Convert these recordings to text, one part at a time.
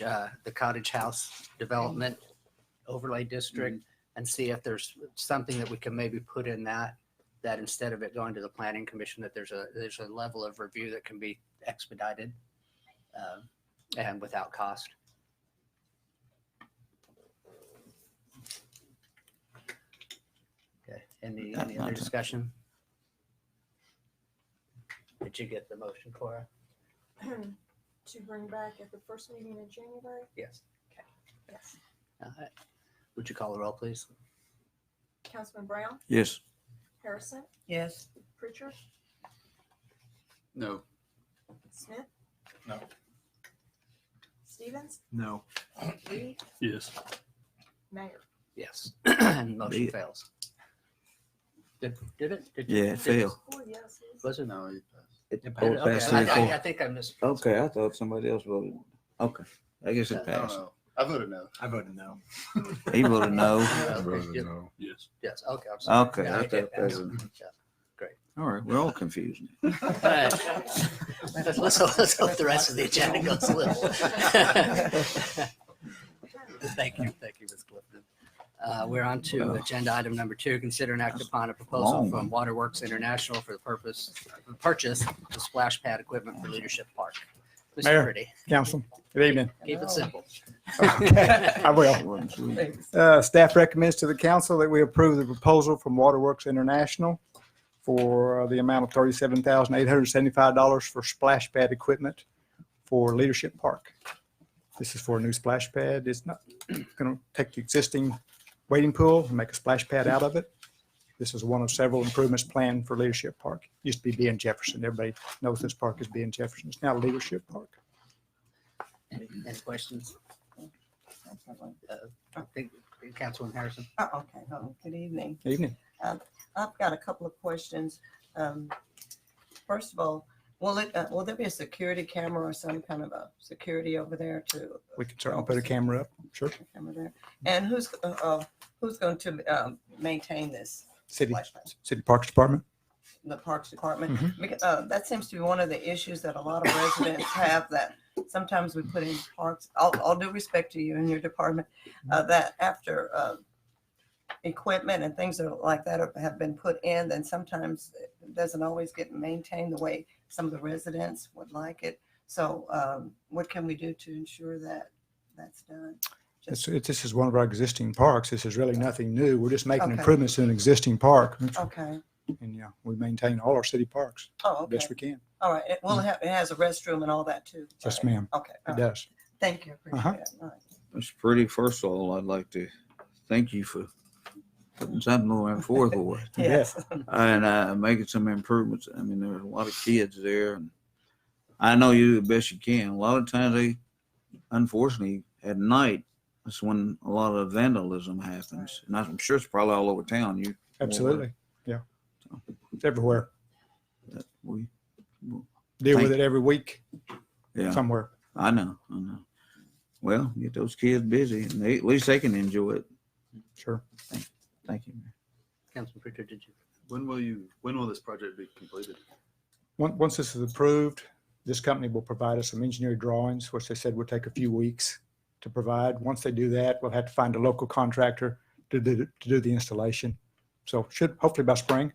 uh, the cottage house development overlay district and see if there's something that we can maybe put in that, that instead of it going to the planning commission, that there's a, there's a level of review that can be expedited uh, and without cost. Okay, any, any other discussion? Did you get the motion, Cora? to bring back at the first meeting in January? Yes. Yes. All right. Would you call the roll, please? Councilman Brown, Yes. Harrison, Yes. Pritchard, No. Smith? No. Stevens, No. Lee, Yes. Mayor. Yes. And motion Yeah. fails. Did, did it? Did- Yeah, it did- failed. Oh, yes. yes. Was it? No. he passed. It It oh, it passed. passed Okay, three to I- I- I four. think I missed. Okay, I thought somebody else voted. Okay, I guess I it I don't passed. know. I voted no. I voted no. Uh, He voted no. Okay, yeah, Yes. Yes, okay. I'm sorry. Okay, Yeah, I I did. thought that was. All right, we're all confused. All right. Let's, let's hope- let's hope the rest of the agenda goes little. Thank you, thank you, Ms. Clifton. Uh, We're on to Well. agenda item number two, consider and act upon a proposal long from one. Waterworks International for the purpose, the purchase of splash pad equipment for Leadership Park. Mr. Mayor. Pretty, Council, good evening. keep it simple. I will. Wasn't sweet. Uh, Staff recommends to the council that we approve the proposal from Waterworks International for uh, the amount of thirty-seven thousand eight hundred seventy-five dollars for splash pad equipment for Leadership Park. This is for a new splash pad. It's not going to take the existing wading pool and make a splash pad out of it. This is one of several improvements planned for Leadership Park. Used to be Ben Jefferson. Everybody knows this park is Ben Jefferson. It's now Leadership Park. Any questions? I think Councilman Harrison? Oh, okay. Oh, Good evening. Evening. I've got a couple of questions. Um, First of all, will it, uh, will there be a security camera or some kind of a security over there to? We can certainly put a camera up. Sure. camera there? And who's, uh, uh, who's going to um, maintain this? City, flashlight? City Parks Department. the Parks Department? Mm-hmm. Because, uh, that seems to be one of the issues that a lot of residents have that sometimes we put in parks, all, all due respect to you and your department, uh, Mm-hmm. that after, uh, equipment and things are- like that are- have been put in, then sometimes it doesn't always get maintained the way some of the residents would like it. So, um, what can we do to ensure that that's done? It's, Just- it, this is one of our existing parks. This is really nothing new. We're just making Okay. improvements to an existing park. Okay, And yeah, we maintain all our city parks oh, okay, best we can. all right. It will have, it has a restroom and all that too. Yes, right? ma'am. Okay, all It right. does. thank you, Uh-huh. appreciate it. All right. That's pretty. First of all, I'd like to thank you for putting something moving forward for us Yes. and uh, making some improvements. I mean, there's a lot of kids there, and I know you do the best you can. A lot of times, they unfortunately at night that's when a lot of vandalism happens, and I'm sure it's probably all over town. You Absolutely. Yeah. It's everywhere. that we, Deal with Thank- it every week yeah. somewhere. I know, I know. Well, get those kids busy, and they, at least they can enjoy it. Sure. Thank you. Mayor. Councilman Pritchard, did you? When will you? When will this project be completed? Once, once this is approved, this company will provide us some engineering drawings, which they said would take a few weeks to provide. Once they do that, we'll have to find a local contractor to do, the- to do the installation. So should hopefully by spring.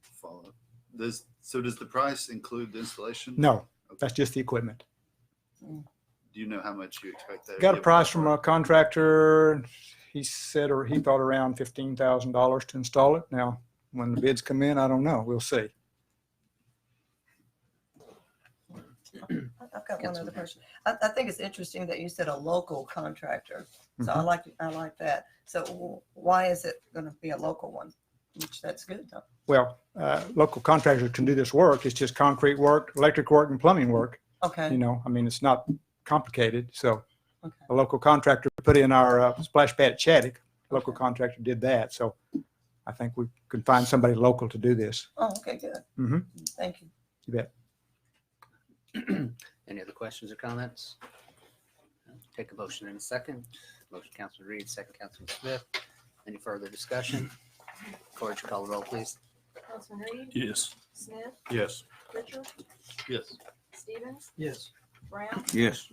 Follow. Does so? Does the price include the installation? No, that's just the equipment. Do you know how much you expect that? Got a price from a contractor. He said, or he thought around fifteen thousand dollars to install it. Now, when the bids come in, I don't know. We'll see. I- I've got one other Councilman question. I, I think it's interesting that you said a local contractor. So I like, I like that. So wh- why is it going to be a local one? Which that's good though. Well, uh, local contractors can do this work. It's just concrete work, electric work and plumbing work. You Okay, know, I mean, it's not complicated. So okay. a local contractor put in our uh, splash pad at Chaddick. Local Okay. contractor did that. So I think we can find somebody local to do this. Oh, okay, good. Mhm. Thank you. Any other questions or comments? Take a motion in a second. Motion, Councilman Reed, second, Councilman Smith. Any further discussion? Corge, call the roll, please. Councilman Reed, Yes. Smith, Yes. Pritchard, Yes. Stevens, Yes. Brown, Yes.